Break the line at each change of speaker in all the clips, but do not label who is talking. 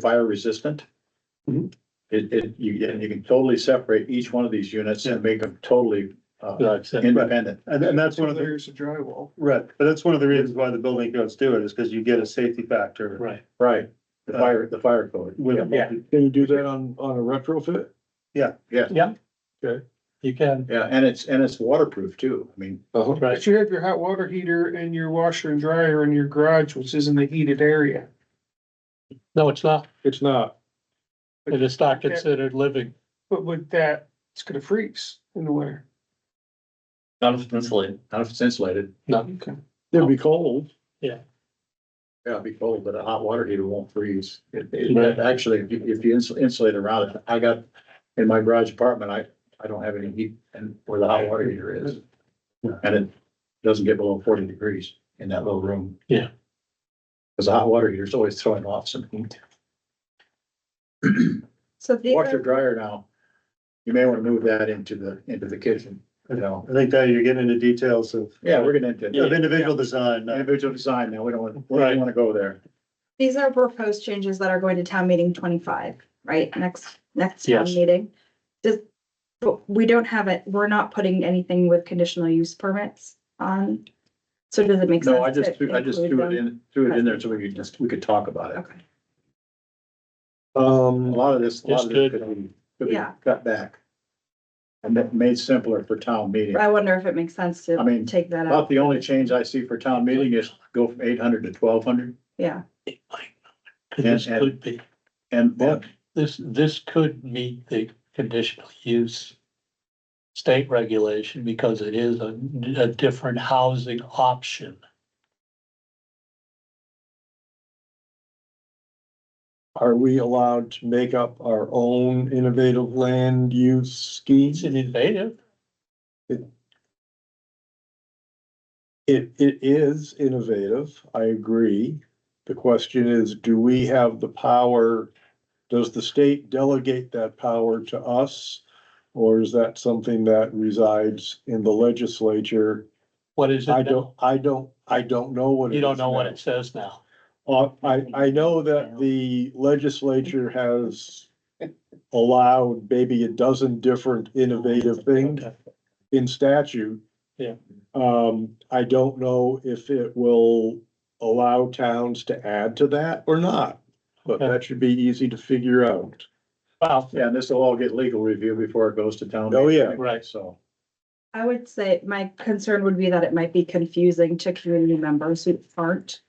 fire resistant.
Mhm.
It, it, you, and you can totally separate each one of these units and make them totally uh, independent.
And, and that's one of the,
Layers of drywall.
right, but that's one of the reasons why the building codes do it, is because you get a safety factor Uh,
Right.
Right, the fire, the fire code.
with. a
Yeah.
multi-
Can you do that on, on a retrofit?
You can,
Yeah, and it's, and it's waterproof too. I mean,
Uh-huh.
right,
But you have your hot water heater and your washer and dryer in your garage, which is in the heated area.
no, it's not,
It's not.
it is not considered living.
But with that, it's gonna freeze in the winter.
Not if it's insulated.
not if it's insulated.
Okay. It'll be cold.
Yeah, it'd be cold, but a hot water heater won't freeze. It, it,
Right.
actually, if you, if you insul- insulate around it, I got, in my garage apartment, I, I don't have any heat and where the hot water heater is. And it doesn't get below forty degrees in that little room.
Yeah.
Cause the hot water heater is always throwing off some heat.
So these
Washer
are,
dryer now, you may want to move that into the, into the kitchen, you know.
I think that you're getting into details of,
Yeah, we're gonna, into
of individual design, not-
individual design now, we don't want, we don't
Right.
want to go there.
these are proposed changes that are going to town meeting twenty-five, right? Next, next town
Yes.
meeting. Does, but we don't have it, we're not putting anything with conditional use permits on. So does it make sense?
No, I just,
to
threw- I just
include
threw it
them?
in, threw it in there so we could just, we could talk about it.
Okay,
A
Um,
lot of this, a lot
Just
of this
good.
could be, could be
Yeah.
cut back. And that made simpler for town meeting.
But I wonder if it makes sense
I
to
mean,
take that out,
About the only change I see for town meeting is go from eight hundred to twelve hundred
yeah.
It might not. This
And- and-
could be,
and
What? this, this could meet the conditional use state regulation because it is a, a different housing option.
are we allowed to make up our own innovative land use
It's
schemes?
an innovative,
It, it is innovative, I agree. The question is, do we have the power? Does the state delegate that power to us? Or is that something that resides in the legislature?
what is it?
I
now?
don't, I don't, I don't know what. it
You don't
is
know what
now.
it says now.
Uh, I, I know that the legislature has allowed maybe a dozen different innovative things
Okay.
in statute.
Yeah.
Um, I don't know if it will allow towns to add to that or not, but
Okay.
that should be easy to figure out.
Well,
Yeah, and this will all get legal review before it goes to town.
Oh,
meeting
yeah.
anyway,
Right.
So,
I would say my concern would be that it might be confusing to community members who aren't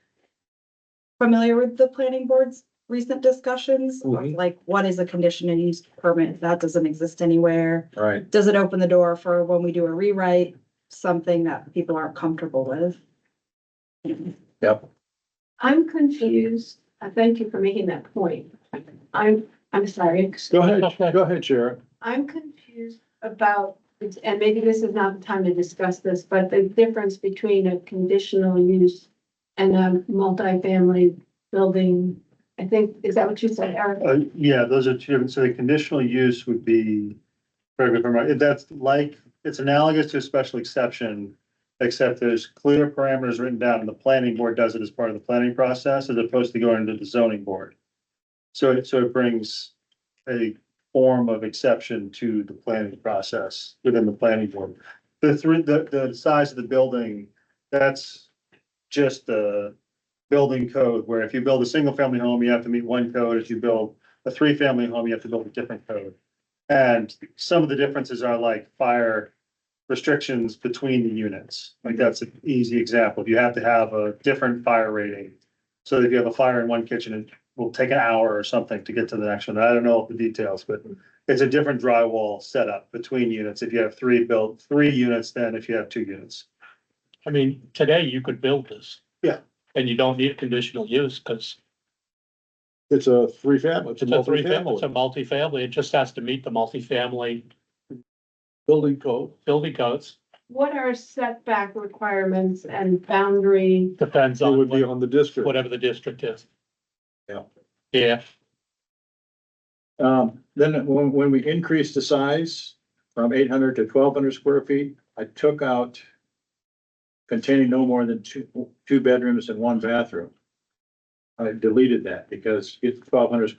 familiar with the planning board's recent discussions, of
Mhm.
like what is a conditional use permit? That doesn't exist anywhere.
right,
Does it open the door for when we do a rewrite, something that people aren't comfortable with?
yep.
I'm confused. Uh, Thank you for making that point. I'm, I'm sorry.
Go ahead,
Okay.
go ahead, Sharon.
I'm confused about, and maybe this is not the time to discuss this, but the difference between a conditional use and a multifamily building. I think, is that what you said, Eric?
Uh, yeah, those are two different, so the conditional use would be, correct me if I'm right, if that's like, it's analogous to a special exception. Except there's clear parameters written down, and the planning board does it as part of the planning process, as opposed to going to the zoning board. So it, so it brings a form of exception to the planning process within the planning board. The three, the, the size of the building, that's just the building code, where if you build a single-family home, you have to meet one code. If you build a three-family home, you have to build a different code. And some of the differences are like fire restrictions between the units. Like that's an easy example. You have to have a different fire rating. So if you have a fire in one kitchen, it will take an hour or something to get to the next one. I don't know the details, but it's a different drywall setup between units. If you have three built, three units, then if you have two units.
I mean, today you could build this.
Yeah.
And you don't need conditional use because
It's a three family.
it's a three family, it's a multifamily. It just has to meet the multifamily
Building code.
building codes.
What are setback requirements and boundary?
Depends
It
on
would be
what-
on the district.
whatever the district is.
Yeah.
Yeah,
Um, then when, when we increased the size from eight hundred to twelve hundred square feet, I took out containing no more than two, two bedrooms and one bathroom. I deleted that because it's twelve hundred